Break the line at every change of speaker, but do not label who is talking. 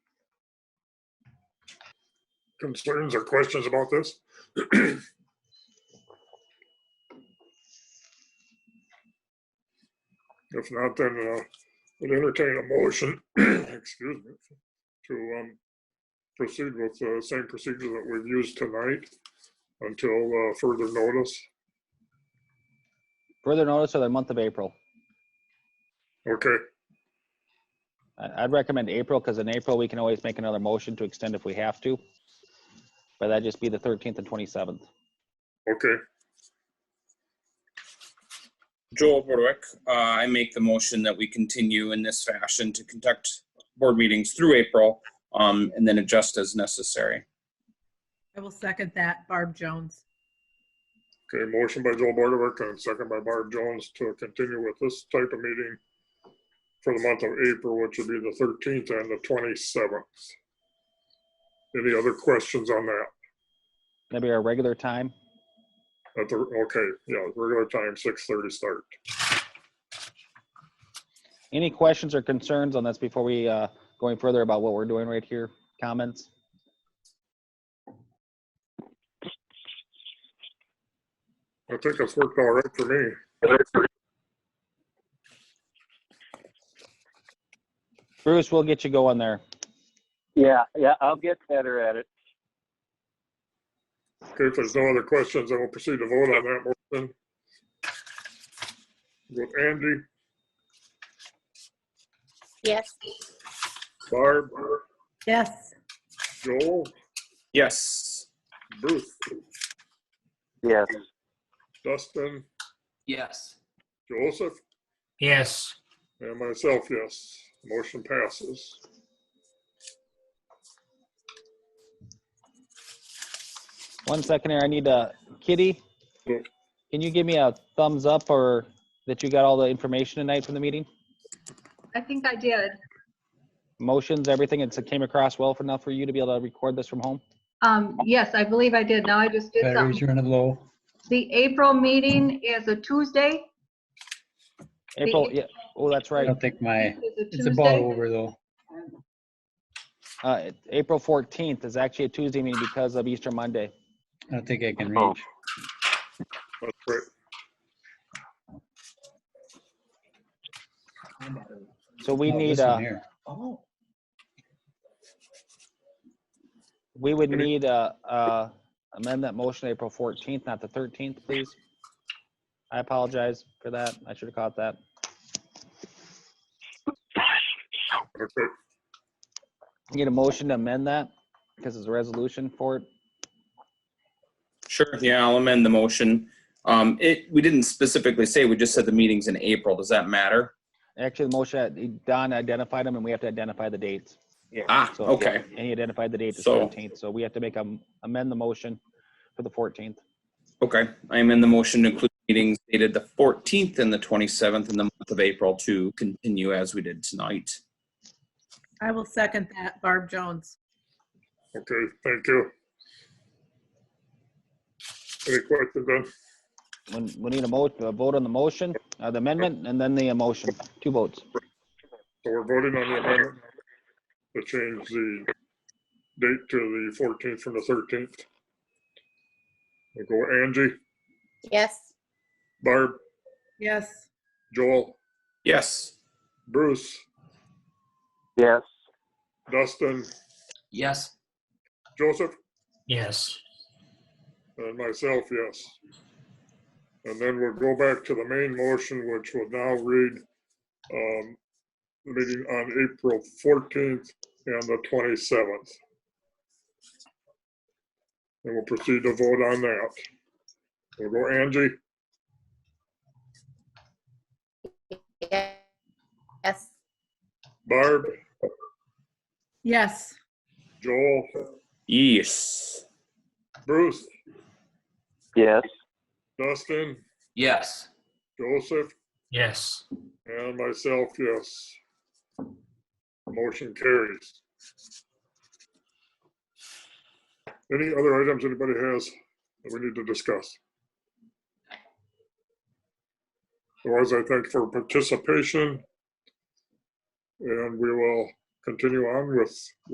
concerns or questions about this? If not, then uh, would entertain a motion, excuse me, to um, proceed with the same procedure that we've used tonight until uh, further notice.
Further notice of the month of April.
Okay,
I- I'd recommend April because in April, we can always make another motion to extend if we have to. But that'd just be the 13th and 27th.
okay.
Joel Borwick, uh, I make the motion that we continue in this fashion to conduct board meetings through April, um, and then adjust as necessary.
I will second that. Barb Jones.
Okay, motion by Joel Bardovic and second by Barb Jones to continue with this type of meeting for the month of April, which would be the thirteenth and the twenty-seventh. Any other questions on that?
That'd be our regular time.
At the, okay, yeah, regular time, six thirty start.
Any questions or concerns on this before we, uh, going further about what we're doing right here? Comments?
I think it's worked all right for me.
Bruce, we'll get you going there.
Yeah, yeah, I'll get better at it.
Okay, if there's no other questions, I will proceed to vote on that motion. With Andy,
Yes.
Barb,
Yes.
Joel,
Yes.
Bruce,
Yes.
Dustin,
Yes.
Joseph,
Yes.
and myself, yes. Motion passes.
One second here, I need a, Kitty,
Yeah.
can you give me a thumbs up or that you got all the information tonight from the meeting?
I think I did.
Motions, everything, it's- it came across well enough for you to be able to record this from home?
Um, yes, I believe I did. Now I just did
Batteries
something.
are in a low.
The April meeting is a Tuesday. The
April, yeah, oh, that's
I
right.
don't think my,
Is a
it's about
Tuesday.
over though.
Uh, it- April 14th is actually a Tuesday meeting because of Easter Monday.
I don't think I can
Oh.
reach.
That's great.
So we
Oh,
need,
this
uh,
one here.
we would
Okay.
need, uh, uh, amend that motion to April 14th, not the 13th, please. I apologize for that. I should have caught that.
Okay,
Need a motion to amend that because it's a resolution for it.
Sure, yeah, I'll amend the motion. Um, it, we didn't specifically say, we just said the meeting's in April. Does that matter?
Actually, the motion, Don identified them and we have to identify the dates.
Ah,
So,
okay.
And he identified the date as
So-
14th, so we have to make, a amend the motion for the 14th.
Okay, I am in the motion to include meetings dated the 14th and the 27th in the month of April to continue as we did tonight.
I will second that. Barb Jones.
okay, thank you. Any questions then?
When, we need a mo, a vote on the motion, uh, the amendment, and then the emotion, two votes.
So we're voting on the amendment to change the date to the fourteenth from the thirteenth. We'll go Angie,
Yes.
Barb,
Yes.
Joel,
Yes.
Bruce,
Yes.
Dustin,
Yes.
Joseph,
Yes.
and Uh, myself, yes. And then we'll go back to the main motion, which will now read, um, meeting on April fourteenth and the twenty-seventh. And we'll proceed to vote on that. We'll go Angie,
Yes.
Barb,
Yes.
Joel,
Yes.
Bruce,
Yes.
Dustin,
Yes.
Joseph,
Yes.
and myself, yes. Motion carries. Any other items anybody has that we need to discuss? Otherwise, I thank for participation. And we will continue on with